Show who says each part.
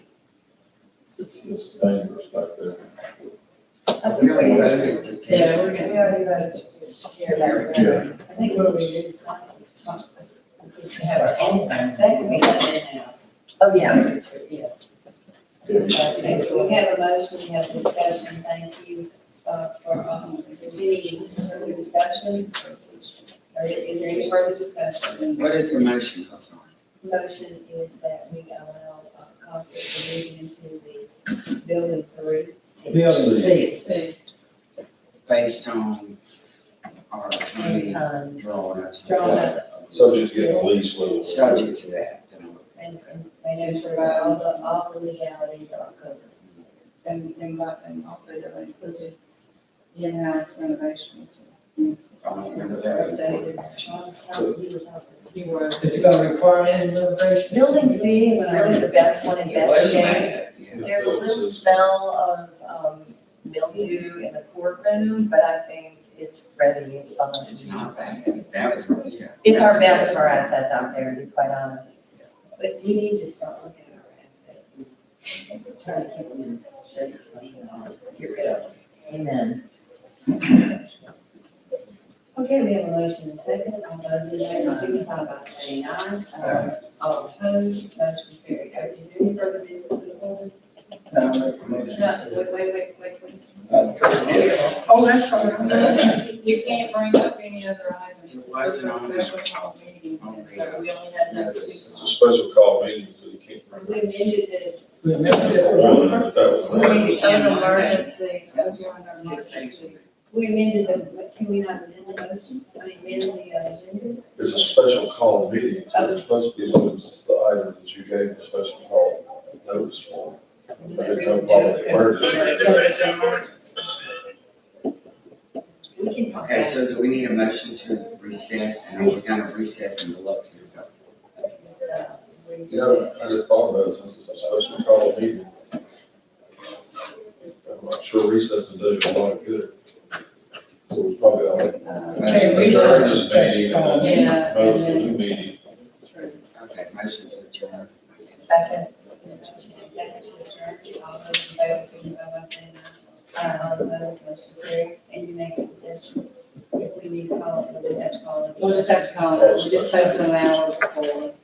Speaker 1: it's, it's dangerous back there.
Speaker 2: I
Speaker 3: We
Speaker 2: think
Speaker 3: already
Speaker 2: we
Speaker 3: voted to take.
Speaker 4: Yeah, we're
Speaker 2: we
Speaker 4: gonna,
Speaker 2: already voted to tear that
Speaker 1: Yeah.
Speaker 2: road. I think what we did is not, it's not,
Speaker 3: We should have our own thing.
Speaker 2: that could be done in-house. Oh, yeah.
Speaker 5: Okay, so we have a motion, we have discussion, thank you, uh, for, um, if there's any further discussion, or is, is there any further discussion?
Speaker 3: What is the motion, Councilman?
Speaker 5: Motion is that we allow, uh, council to move into the building three.
Speaker 1: Building C.
Speaker 4: see,
Speaker 3: Based on our attorney
Speaker 2: Um,
Speaker 3: drawing up.
Speaker 5: Drawn up,
Speaker 1: Subject to getting a lease with.
Speaker 3: Subject to that. you know.
Speaker 5: and, and they know sure about all the, all the legalities are covered. And, and, what- and also that we included in-house renovations.
Speaker 3: I don't remember that.
Speaker 5: Building
Speaker 4: you were.
Speaker 6: Is it gonna require any renovation?
Speaker 2: Building C is really the best one in
Speaker 3: It
Speaker 2: best
Speaker 3: was
Speaker 2: shape.
Speaker 3: bad, yeah.
Speaker 2: There's a little smell of, um, mildew in the courtroom, but I think it's ready, it's fine.
Speaker 3: It's not bad. That was, yeah.
Speaker 2: It's our best for assets out there, to be quite honest.
Speaker 5: But you need to start looking at our assets and trying to keep them in shape or something, or get rid of them.
Speaker 2: Amen.
Speaker 5: Okay, we have a motion and a second. All those in favor signify by saying aye. Aye. All opposed, motion carried. Okay, Is there any further business in the board?
Speaker 3: No, I remember that.
Speaker 5: No, wait, wait, wait, wait, wait.
Speaker 6: Oh, that's right.
Speaker 4: You can't bring up any other items.
Speaker 3: It wasn't on there.
Speaker 4: This is a special call meeting, and so we only had
Speaker 1: It's a
Speaker 4: those
Speaker 1: special call meeting for the King.
Speaker 5: We amended the,
Speaker 6: We missed it.
Speaker 1: One, that was.
Speaker 4: two. That was emergency, that was your emergency.
Speaker 5: we amended the, can we not amend the motion? I mean, amend the uh, agenda?
Speaker 1: It's a special call meeting, so it's supposed to be limited to the items that you gave the special call notice for.
Speaker 5: Would
Speaker 1: But
Speaker 5: that
Speaker 1: it
Speaker 5: be
Speaker 1: don't follow the
Speaker 5: okay?
Speaker 1: emergency.
Speaker 5: We can talk about
Speaker 3: Okay,
Speaker 5: it.
Speaker 3: so do we need a motion to recess, and are we gonna recess and look to the vote?
Speaker 5: Okay, so, Uh, we-
Speaker 1: You know, I just thought about it, since it's a special call meeting. I'm not sure recess and do a lot of good. So we probably ought to.
Speaker 6: Hey, we-
Speaker 1: Adjourn this meeting and then
Speaker 4: Yeah.
Speaker 1: notice the new meeting.
Speaker 3: Okay, motion to adjourn.
Speaker 2: Second,
Speaker 5: Motion and second to adjourn. All those in favor signify by saying aye. Aye, uh, all opposed, motion carried. And you make suggestions if we need to call, it, we'll just have to call. it.
Speaker 4: We'll just have to call it, we just posted an hour